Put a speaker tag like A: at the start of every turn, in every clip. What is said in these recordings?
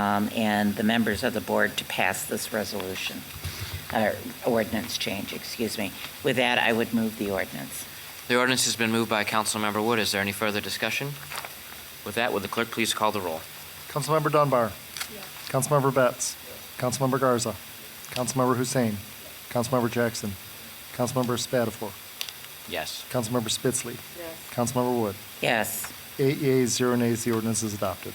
A: um, and the members of the board to pass this resolution, or ordinance change, excuse me. With that, I would move the ordinance.
B: The ordinance has been moved by Councilmember Wood. Is there any further discussion? With that, would the clerk please call the roll?
C: Councilmember Dunbar. Councilmember Betts. Councilmember Garza. Councilmember Hussein. Councilmember Jackson. Councilmember Spatafor.
B: Yes.
C: Councilmember Spitzley. Councilmember Wood.
A: Yes,
C: Eight yeas, zero nays, the ordinance is adopted.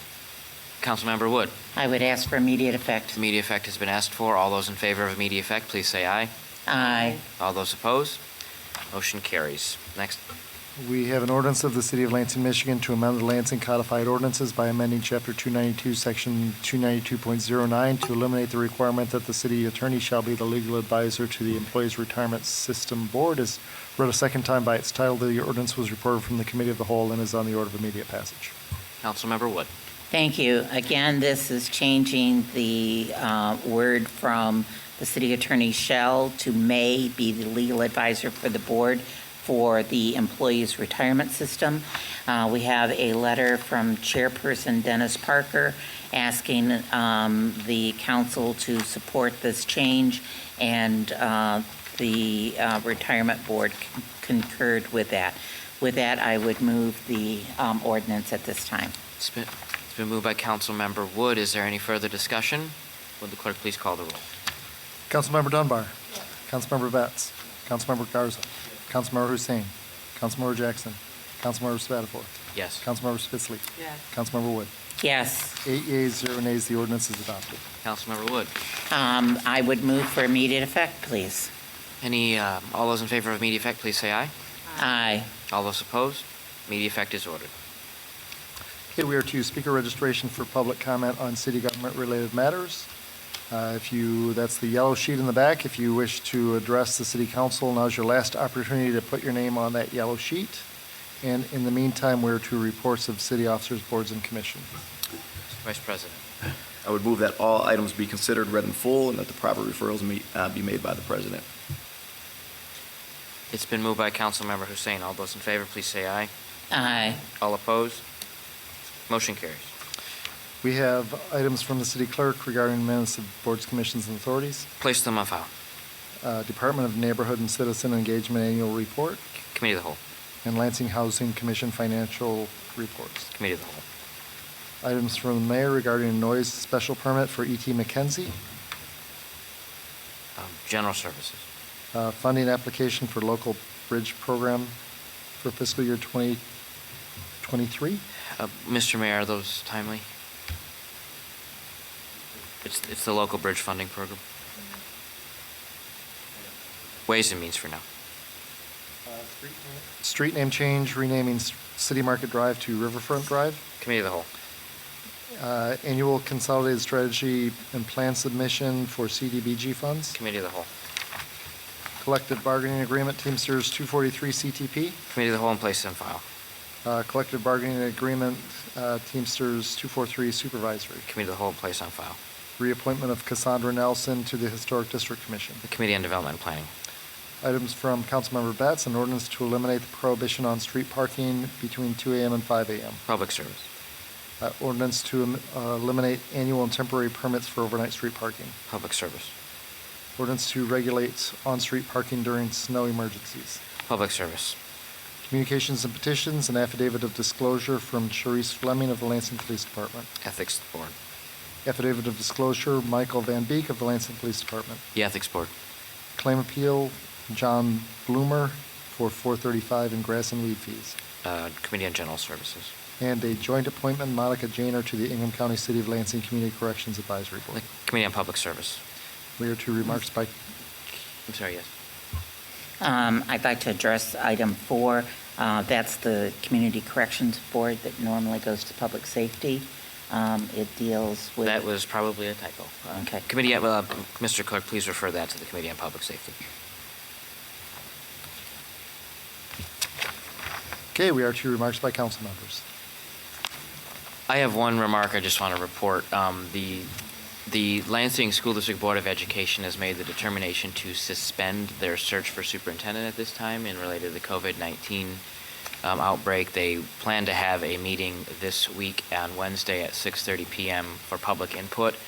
B: Councilmember Wood,
A: I would ask for immediate effect.
B: immediate effect has been asked for. All those in favor of immediate effect, please say aye.
A: Aye.
B: All those opposed? Motion carries. Next,
C: We have an ordinance of the City of Lansing, Michigan to amend the Lansing codified ordinances by amending Chapter 292, Section 292.09 to eliminate the requirement that the city attorney shall be the legal advisor to the Employees Retirement System Board. Is read a second time by its title. The ordinance was reported from the Committee of the Whole and is on the order of immediate passage.
B: Councilmember Wood.
A: Thank you. Again, this is changing the uh, word from the city attorney shall to may be the legal advisor for the board for the employees' retirement system. Uh, We have a letter from Chairperson Dennis Parker asking um, the council to support this change, and uh, the uh, retirement board con- concurred with that. With that, I would move the um, ordinance at this time.
B: It's been, it's been moved by Councilmember Wood. Is there any further discussion? Would the clerk please call the roll?
C: Councilmember Dunbar. Councilmember Betts. Councilmember Garza. Councilmember Hussein. Councilmember Jackson. Councilmember Spatafor.
B: Yes.
C: Councilmember Spitzley.
D: Yes.
C: Councilmember Wood.
A: Yes.
C: Eight yeas, zero nays, the ordinance is adopted.
B: Councilmember Wood.
A: Um, I would move for immediate effect, please.
B: Any, um, all those in favor of immediate effect, please say aye.
A: Aye.
B: All those opposed? Immediate effect is ordered.
C: Okay, we are to speaker registration for public comment on city government-related matters. Uh, If you, that's the yellow sheet in the back. If you wish to address the city council, now's your last opportunity to put your name on that yellow sheet. And in the meantime, we're to reports of city officers, boards, and commission.
B: Vice President.
E: I would move that all items be considered read in full and that the proper referrals me- uh, be made by the president.
B: It's been moved by Councilmember Hussein. All those in favor, please say aye.
A: Aye.
B: All opposed? Motion carries.
C: We have items from the city clerk regarding minutes of boards, commissions, and authorities.
B: Place them on file.
C: Uh, Department of Neighborhood and Citizen Engagement Annual Report,
B: Committee of the Whole.
C: and Lansing Housing Commission Financial Reports.
B: Committee of the Whole.
C: Items from the mayor regarding a noise special permit for E.T. McKenzie,
B: Um, General Services.
C: uh, funding application for local bridge program for fiscal year 2023.
B: Uh, Mr. Mayor, are those timely? It's, it's the local bridge funding program. Ways and means for now.
C: Street name change, renaming S- City Market Drive to Riverfront Drive.
B: Committee of the Whole.
C: Uh, Annual consolidated strategy and plan submission for CDBG funds.
B: Committee of the Whole.
C: Collective bargaining agreement Teamsters 243 CTP.
B: Committee of the Whole and place on file.
C: Uh, Collective bargaining agreement uh, Teamsters 243 supervisory.
B: Committee of the Whole and place on file.
C: Reappointment of Cassandra Nelson to the Historic District Commission.
B: The Committee on Development and Planning.
C: Items from Councilmember Betts, an ordinance to eliminate the prohibition on street parking between 2 AM and 5 AM.
B: Public Service.
C: Uh, Ordinance to um, uh, eliminate annual and temporary permits for overnight street parking.
B: Public Service.
C: Ordinance to regulate on-street parking during snow emergencies.
B: Public Service.
C: Communications and petitions, an affidavit of disclosure from Charisse Fleming of the Lansing Police Department.
B: Ethics Board.
C: Affidavit of disclosure, Michael Van Beek of the Lansing Police Department.
B: The Ethics Board.
C: Claim appeal, John Bloomer for 435 in grass and weed fees.
B: Uh, Committee on General Services.
C: And a joint appointment, Monica Janer to the Ingham County City of Lansing Community Corrections Advisory
B: The
C: Board.
B: Committee on Public Service.
C: We are to remarks by,
B: I'm sorry, yes.
A: Um, I'd like to address item four. Uh, that's the Community Corrections Board that normally goes to public safety. Um, it deals with.
B: That was probably a typo. Uh,
A: Okay.
B: Committee, on- uh, Mr. Clerk, please refer that to the Committee on Public Safety.
C: okay, we are to remarks by council members.
B: I have one remark I just want to report. Um, The, the Lansing School District Board of Education has made the determination to suspend their search for superintendent at this time in related to the COVID-19 um, outbreak. They plan to have a meeting this week on Wednesday at 6:30 PM for public input.